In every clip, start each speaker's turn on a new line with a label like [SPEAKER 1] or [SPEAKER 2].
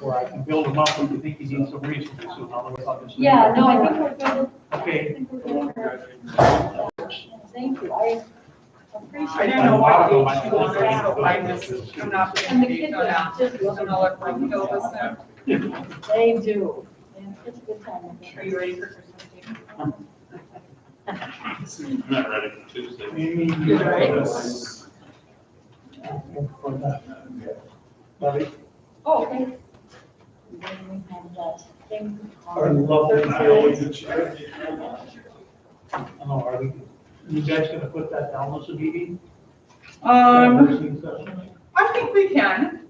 [SPEAKER 1] or I can build him up when you think he needs some resources, otherwise I'll just.
[SPEAKER 2] Yeah, no, I think we're good.
[SPEAKER 1] Okay.
[SPEAKER 2] I think we're good. Thank you, I appreciate it.
[SPEAKER 3] I don't know why they chew on it, so I just, I'm not putting
[SPEAKER 2] And the
[SPEAKER 3] anything
[SPEAKER 2] kids
[SPEAKER 3] on
[SPEAKER 2] are
[SPEAKER 3] that.
[SPEAKER 2] just
[SPEAKER 3] I'm
[SPEAKER 2] looking,
[SPEAKER 3] gonna let them go with them.
[SPEAKER 2] they do, and it's a good time.
[SPEAKER 3] Are you ready for Christmas?
[SPEAKER 4] I'm not ready for Tuesday.
[SPEAKER 1] Lovely.
[SPEAKER 2] Oh, okay. Then we have that thing
[SPEAKER 1] Our
[SPEAKER 2] on
[SPEAKER 1] lovely
[SPEAKER 2] Thursday.
[SPEAKER 1] I know, are we, you guys gonna put that down, Mr. Beebe?
[SPEAKER 3] Um,
[SPEAKER 1] Um.
[SPEAKER 3] I think we can,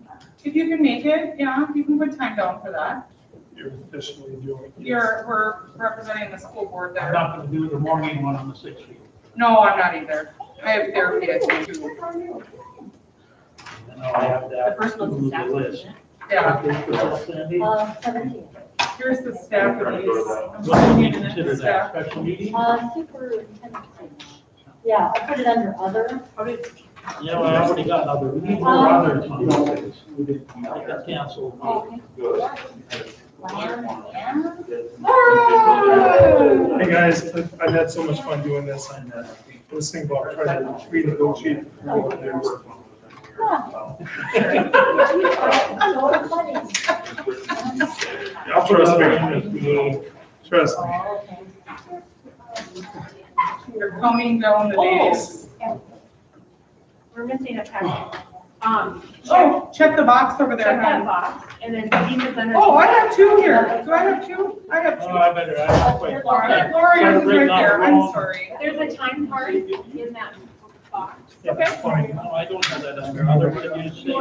[SPEAKER 3] if you can make it, yeah, you can put time down for that.
[SPEAKER 5] You're officially doing.
[SPEAKER 3] You're, we're representing the school board
[SPEAKER 1] I'm
[SPEAKER 3] there.
[SPEAKER 1] not gonna do the morning one on the sixteenth.
[SPEAKER 3] No, I'm not either. I have therapy at two.
[SPEAKER 1] And I'll have that.
[SPEAKER 6] The first one's
[SPEAKER 1] to the
[SPEAKER 6] exactly.
[SPEAKER 1] list.
[SPEAKER 3] Yeah,
[SPEAKER 1] Okay, so that's Sandy.
[SPEAKER 2] Uh, seventeen,
[SPEAKER 3] here's the staff release. I'm
[SPEAKER 1] What do
[SPEAKER 3] looking
[SPEAKER 1] we
[SPEAKER 3] at
[SPEAKER 1] consider
[SPEAKER 3] the
[SPEAKER 1] that,
[SPEAKER 3] staff.
[SPEAKER 1] special meeting?
[SPEAKER 2] uh, superintendent. search. Yeah, I put it under other.
[SPEAKER 1] Yeah, well, I already got another, we need more
[SPEAKER 2] Um,
[SPEAKER 1] others. on this. I got canceled.
[SPEAKER 2] Oh,
[SPEAKER 5] Hey, guys, I've had so much fun doing this, I'm uh, listening about trying to renegotiate.
[SPEAKER 2] So funny.
[SPEAKER 5] I'll trust me, trust me.
[SPEAKER 3] You're combing down the days.
[SPEAKER 6] We're missing a packet. Um, check
[SPEAKER 3] Oh, check the box over
[SPEAKER 6] check that
[SPEAKER 3] there.
[SPEAKER 6] box and then see if it's under.
[SPEAKER 3] Oh, I have two here. Do I have two? I have
[SPEAKER 1] Oh,
[SPEAKER 3] two.
[SPEAKER 1] I better, I, wait.
[SPEAKER 3] All right, Lori, this is right there. I'm sorry.
[SPEAKER 6] There's a time card in that box.
[SPEAKER 3] Okay.
[SPEAKER 1] Fine, no, I don't have that under other, what did you say?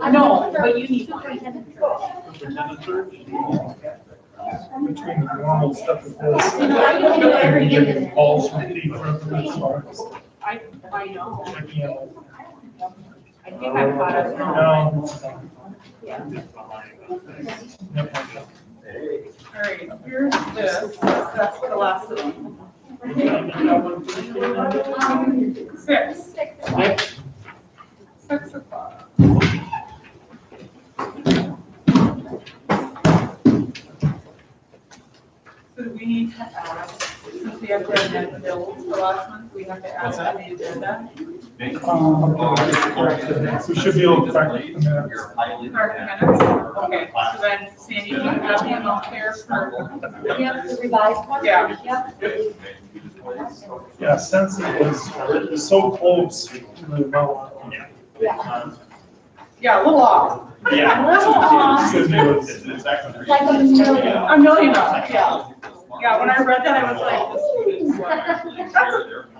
[SPEAKER 6] I know, but you need one.
[SPEAKER 2] Superintendent search.
[SPEAKER 1] Superintendent search?
[SPEAKER 5] Between the normal stuff with this.
[SPEAKER 6] You know, I don't know every
[SPEAKER 2] end.
[SPEAKER 5] All from the president, so
[SPEAKER 6] I, I know.
[SPEAKER 5] I can't.
[SPEAKER 6] I think I caught up now.
[SPEAKER 5] No.
[SPEAKER 6] Yeah.
[SPEAKER 5] Nope.
[SPEAKER 3] All right, here's this. That's the last one. Six,
[SPEAKER 1] Next,
[SPEAKER 3] six o'clock. So do we need to add, since we have to amend bills for last month, we have to add that to the agenda?
[SPEAKER 5] Um, We should be able to correct the minutes.
[SPEAKER 3] Our minutes? Okay, so then Sandy, you have the amount there for,
[SPEAKER 2] Yep, the revised one.
[SPEAKER 3] Yeah.
[SPEAKER 2] Yep.
[SPEAKER 5] Yeah, since it was it was so close to the amount.
[SPEAKER 2] Yeah.
[SPEAKER 3] yeah, a little off.
[SPEAKER 4] Yeah.
[SPEAKER 3] A little off.
[SPEAKER 5] Because it was-
[SPEAKER 2] Like a million.
[SPEAKER 3] A million dollars, yeah. Yeah, when I read that, I was like, this is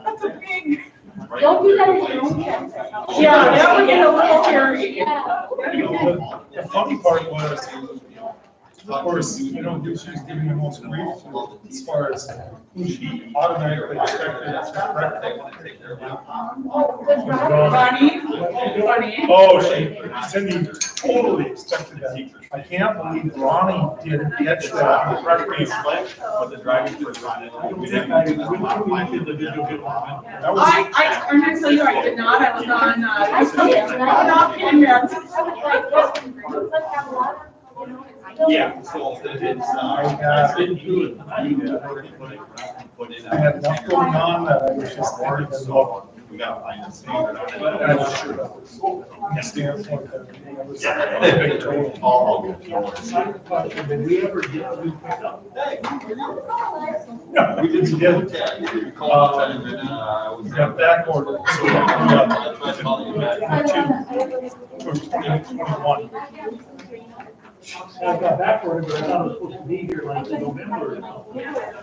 [SPEAKER 3] That's a big,
[SPEAKER 2] Don't do that in your own chest.
[SPEAKER 3] yeah, that would get a little hairy.
[SPEAKER 2] Yeah.
[SPEAKER 5] You know, The the funny part was, of course, you know, who she's giving the most grief to as far as who she automatically expected to correct
[SPEAKER 6] Oh,
[SPEAKER 3] Funny,
[SPEAKER 5] it.
[SPEAKER 3] funny.
[SPEAKER 5] Oh, she, Cindy totally expected that. I can't believe Ronnie didn't catch that. correctly. That was-
[SPEAKER 3] I, I, I'm gonna tell you, I did not, I was on, uh,
[SPEAKER 2] I see it, and
[SPEAKER 3] I'm
[SPEAKER 2] I-
[SPEAKER 3] not kidding,
[SPEAKER 2] I
[SPEAKER 3] man.
[SPEAKER 2] was like, let's- let's have a lot of, you know, it's-
[SPEAKER 4] Yeah, so it's,
[SPEAKER 5] I
[SPEAKER 4] uh,
[SPEAKER 5] had,
[SPEAKER 1] didn't do it.
[SPEAKER 5] I had enough going on that I was just worried as well.
[SPEAKER 4] We gotta find a
[SPEAKER 5] But I was sure that was. Standpoint that I was- Big total.
[SPEAKER 1] Did we ever get a new pickup?
[SPEAKER 5] No, we didn't get, we got back order. so we got
[SPEAKER 2] I wanna- I wanna-
[SPEAKER 5] two, or twenty-one.
[SPEAKER 1] I got backward, but I thought I was supposed to be here like in November.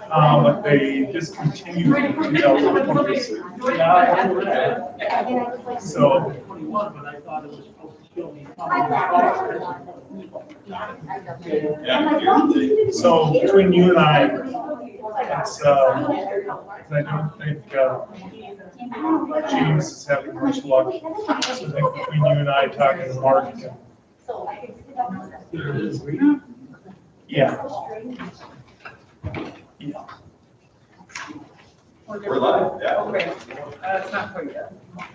[SPEAKER 5] Um, but they discontinued in 2026.
[SPEAKER 1] Yeah, I remember that.
[SPEAKER 2] And I was like-
[SPEAKER 5] So,
[SPEAKER 1] Twenty-one, but I thought it was supposed to still be.
[SPEAKER 2] I thought- I'm like, well, you-
[SPEAKER 5] so between you and I, it's, um, I don't think, uh, James is having much luck. So I think between you and I talking to Mark,
[SPEAKER 2] So I could sit down with them.
[SPEAKER 5] yeah,
[SPEAKER 3] We're good.
[SPEAKER 4] We're live, yeah.
[SPEAKER 3] Okay, that's not quite yet.